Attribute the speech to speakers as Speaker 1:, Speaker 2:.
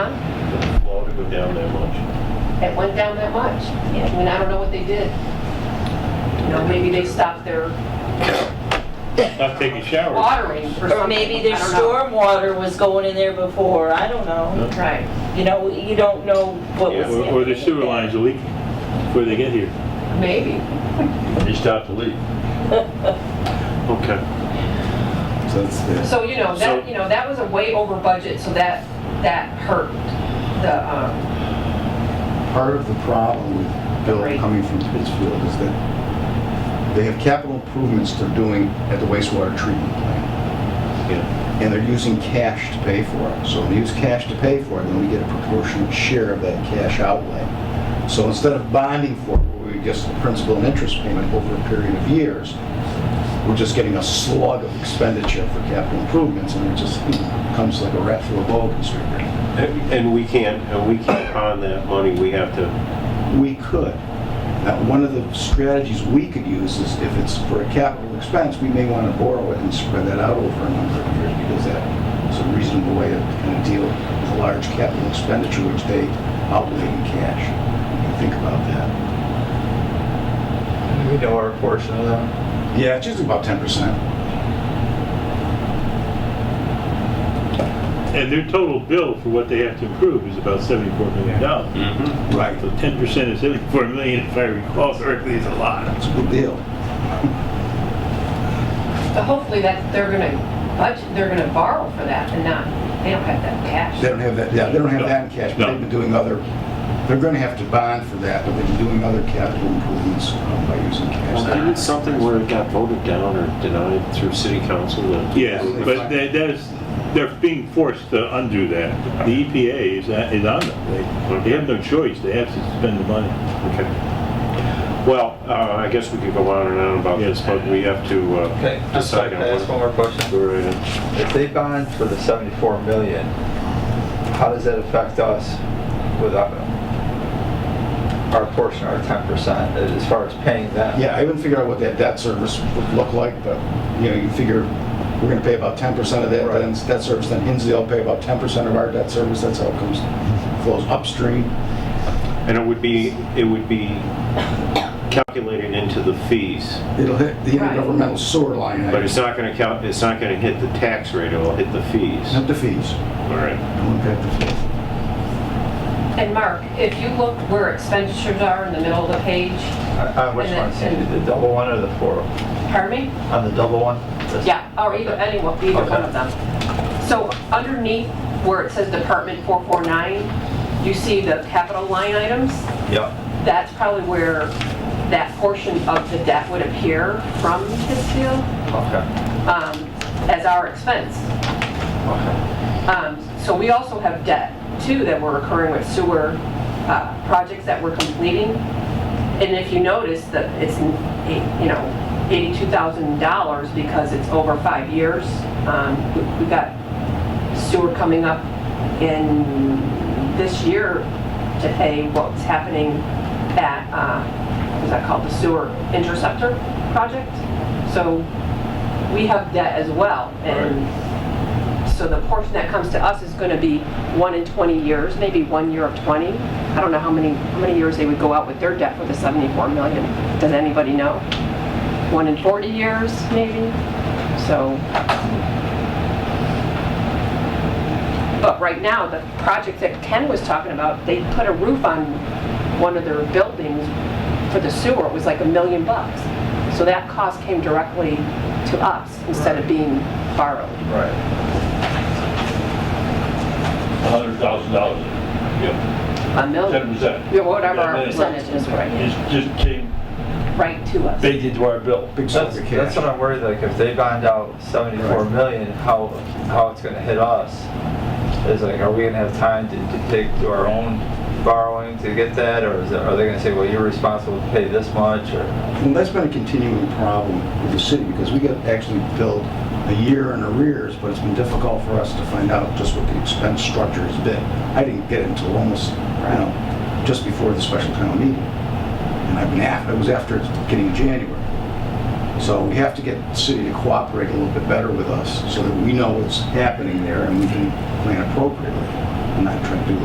Speaker 1: went down that much.
Speaker 2: It went down that much.
Speaker 3: Yeah.
Speaker 2: I mean, I don't know what they did. You know, maybe they stopped their
Speaker 1: Not taking showers.
Speaker 2: watering or something.
Speaker 3: Or maybe their
Speaker 2: Um, I don't know.
Speaker 3: stormwater was going in there before, I don't know.
Speaker 2: Right.
Speaker 3: You know, you don't know what was.
Speaker 1: Or or the sewer lines are leaking before they get here.
Speaker 2: Maybe.
Speaker 1: They start to leak. Okay.
Speaker 4: So that's the,
Speaker 2: So, you know,
Speaker 1: So-
Speaker 2: that, you know, that was a way over budget, so that, that hurt the, um,
Speaker 4: part of the problem with Bill
Speaker 2: Right.
Speaker 4: coming from Pittsfield is that they have capital improvements they're doing at the wastewater treatment plant,
Speaker 1: Yeah.
Speaker 4: and they're using cash to pay for it. So when they use cash to pay for it, then we get a proportionate share of that cash outlay. So instead of bonding for it, where we just the principal and interest payment over a period of years, we're just getting a slug of expenditure for capital improvements, and it just you know, comes like a rat through a boa constrictor.
Speaker 1: And and we can't, and we can't pawn that money. We have to,
Speaker 4: we could. Now, one of the strategies we could use is if it's for a capital expense, we may want to borrow it and spread that out over a number of years because that is a reasonable way to kind of deal with a large capital expenditure which they outlay in cash. You can Think about that.
Speaker 5: We know our portion of that.
Speaker 4: Yeah, it's just about ten percent.
Speaker 1: and their total bill for what they have to improve is about seventy-four million dollars.
Speaker 4: Right.
Speaker 1: So ten percent of seventy-four million, if I recall correctly, is a lot.
Speaker 4: It's a good deal.
Speaker 2: so hopefully that, they're gonna budget, they're gonna borrow for that and not, they don't have that
Speaker 4: They
Speaker 2: cash.
Speaker 4: don't have that, yeah, they don't have that in cash, but
Speaker 1: No.
Speaker 4: they've been doing other, they're gonna have to bond for that, but they've been doing other capital improvements uh, by using
Speaker 6: Well, didn't
Speaker 4: cash.
Speaker 6: something where it got voted down or denied through city council? that-
Speaker 1: Yes, but that, that's, they're being forced to undo that. The EPA is, uh, is on them. They, they have no choice. They have to spend the money.
Speaker 6: Okay. Well, uh, I guess we could go on and on about this, but we have to uh,
Speaker 5: Okay, just
Speaker 6: decide
Speaker 5: like to
Speaker 6: on
Speaker 5: ask one
Speaker 6: what.
Speaker 5: more question.
Speaker 6: Go right ahead.
Speaker 5: If they bond for the 74 million, how does that affect us with our our portion, our 10%, as far as paying them?
Speaker 4: Yeah, I haven't figured out what that debt service would look like, but, you know, you figure we're gonna pay about ten percent of that,
Speaker 5: Right.
Speaker 4: then debt service, then Hinsdale pay about ten percent of our debt service, that's how it comes, flows upstream.
Speaker 6: And it would be, it would be calculated into the fees,
Speaker 4: It'll hit the
Speaker 2: Right.
Speaker 4: intergovernmental sewer line,
Speaker 6: but
Speaker 4: item.
Speaker 6: it's not gonna count, it's not gonna hit the tax rate, it'll hit the fees.
Speaker 4: not the fees.
Speaker 6: All right.
Speaker 4: Don't impact the fees.
Speaker 2: And Mark, if you look where expenditures are in the middle of the page,
Speaker 5: On on which
Speaker 2: And
Speaker 5: one,
Speaker 2: then-
Speaker 5: Sandy, the double one or the four?
Speaker 2: pardon me?
Speaker 5: On the double one?
Speaker 2: Yeah, or either, anyone, either one of them. So underneath where it says Department 449, you see the capital line items?
Speaker 5: Yep,
Speaker 2: That's probably where that portion of the debt would appear from Pittsfield
Speaker 5: okay,
Speaker 2: um, as our expense.
Speaker 5: okay.
Speaker 2: Um, So we also have debt too that we're incurring with sewer uh, projects that we're completing. And if you notice that it's, you know, $82,000 because it's over five years. Um, we- We've got sewer coming up in this year to pay what's happening at, uh, what is that called, the sewer interceptor project? So we have debt as well. And so the portion that comes to us is going to be one in 20 years, maybe one year of 20. I don't know how many, how many years they would go out with their debt for the 74 million. Does anybody know? One in 40 years, maybe? So. But right now, the project that Ken was talking about, they put a roof on one of their buildings for the sewer. It was like a million bucks. So that cost came directly to us instead of being borrowed.
Speaker 5: Right.
Speaker 7: hundred thousand dollars,
Speaker 2: a
Speaker 7: ten
Speaker 2: million,
Speaker 7: percent.
Speaker 2: yeah, whatever our percentage is, right,
Speaker 7: just came
Speaker 2: right to us.
Speaker 7: baked into our bill.
Speaker 4: Big
Speaker 5: That's,
Speaker 4: chunk of
Speaker 5: that's what
Speaker 4: cash.
Speaker 5: I'm worried, like, if they bond out 74 million, how, how it's gonna hit us? Is like, are we gonna have time to, to take to our own borrowing to get that, or is it, are they gonna say, well, you're responsible to pay this much, or?
Speaker 4: Well, that's been a continuing problem with the city because we got actually billed a year in arrears, but it's been difficult for us to find out just what the expense structure has been. I didn't get it until almost, you know, just before the special town meeting. And I've been after, it was after it's beginning of January. So we have to get the city to cooperate a little bit better with us so that we know what's happening there and we can plan appropriately. I'm not trying to do